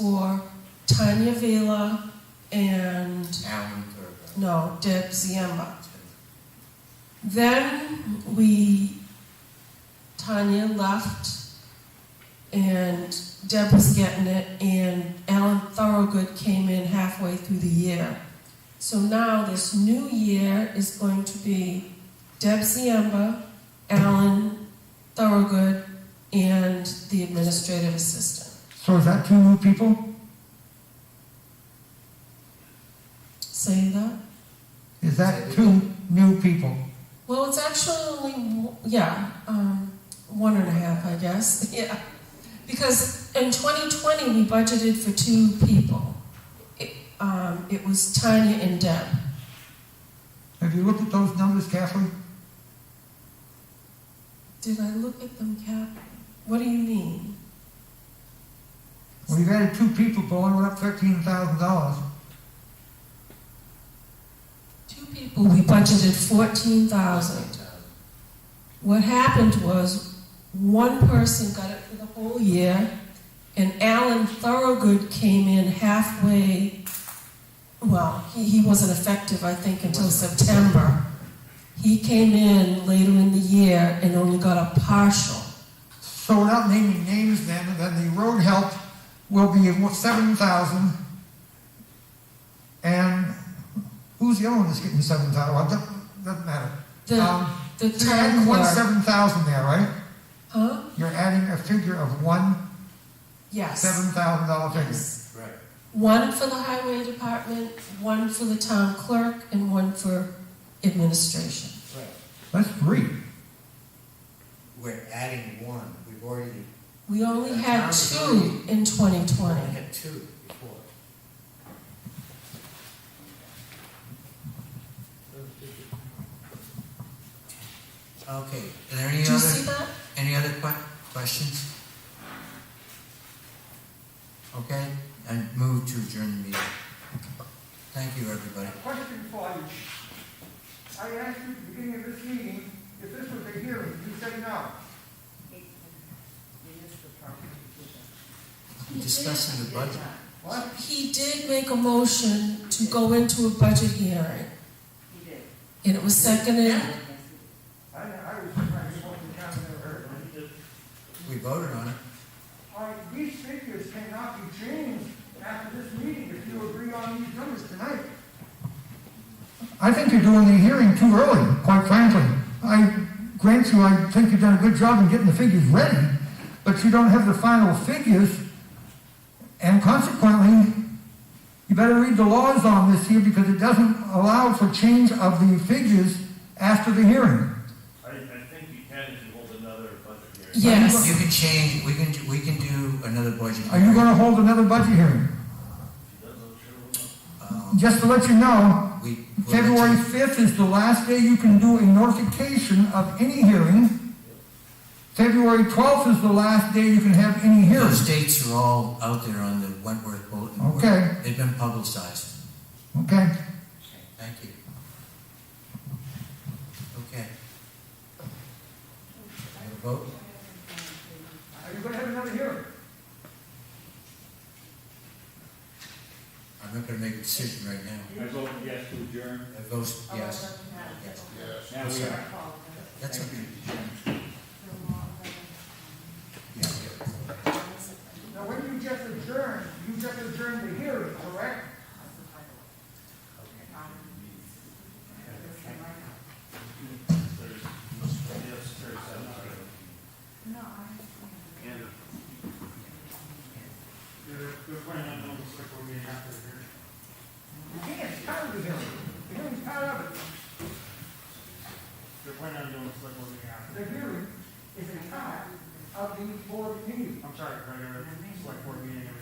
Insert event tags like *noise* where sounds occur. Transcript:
for Tanya Vela and, Alan Thurber. no, Deb Ziemba. Then we, Tanya left, and Deb was getting it, and Alan Thorogood came in halfway through the year. So now this new year is going to be Deb Ziemba, Alan Thorogood, and the administrative assistant. So is that two new people? Say that? Is that two new people? Well, it's actually only, w- yeah, um, one and a half, I guess, *laughs* yeah. Because in 2020, we budgeted for two people. It, um, it was Tanya and Deb. Have you looked at those numbers, Kathleen? Did I look at them, Cap? What do you mean? Well, you've added two people, but only went up thirteen thousand dollars. Two people, we budgeted 14,000. Thousand. What happened was one person got it for the whole year, and Alan Thorogood came in halfway. Well, he, he wasn't effective, I think, until September. He came in later in the year and only got a partial. So without naming names then, then the road help will be seven thousand. And who's the other one that's getting seven thousand? Well, doesn't, doesn't matter. The, Um, the You're adding town one clerk. seven thousand there, right? Huh? You're adding a figure of one Yes. seven thousand dollar figure. Yes. Right. One for the highway department, one for the town clerk, and one for administration. Right. That's three. We're adding one. We've already We only had That's two in 2020. only had two before. Okay, are there any Do you see other, that? any other que- questions? Okay, I move to adjourn the meeting. Thank you, everybody. Question for you. I asked you at the beginning of this meeting if this was a hearing. You said no. Discussing the budget. What? He did make a motion to go into a budget hearing, He did. and it was seconded. I, I was trying to walk the town and never heard. We voted on it. All right, these figures cannot be changed after this meeting if you agree on these numbers tonight. I think you're doing the hearing too early, quite frankly. I grant you, I think you've done a good job in getting the figures ready, but you don't have the final figures, and consequently, you better read the laws on this here because it doesn't allow for change of the figures after the hearing. I, I think you can if you hold another budget hearing. Yes. You can change, we can, do- we can do another budget. Are you hearing. gonna hold another budget hearing? Um, Just to let you know, We. we'll let you- February 5th is the last day you can do a notification of any hearing. February 12th is the last day you can have any hearing. Those dates are all out there on the Wentworth bulletin board. Okay. They've been publicized. Okay? Thank you. Okay. I have a vote? Are you gonna have another hearing? I'm not gonna make a decision right now. I vote yes to adjourn. I vote yes. Yes. Now we are. That's okay. Yeah, yeah. Now, when you just adjourned, you just adjourned the hearing, correct? You can't, it's part of the hearing. The hearing's part of it. They're planning on doing a select board meeting after. The hearing is a part of the board meeting. I'm sorry, regular select board meeting in uh,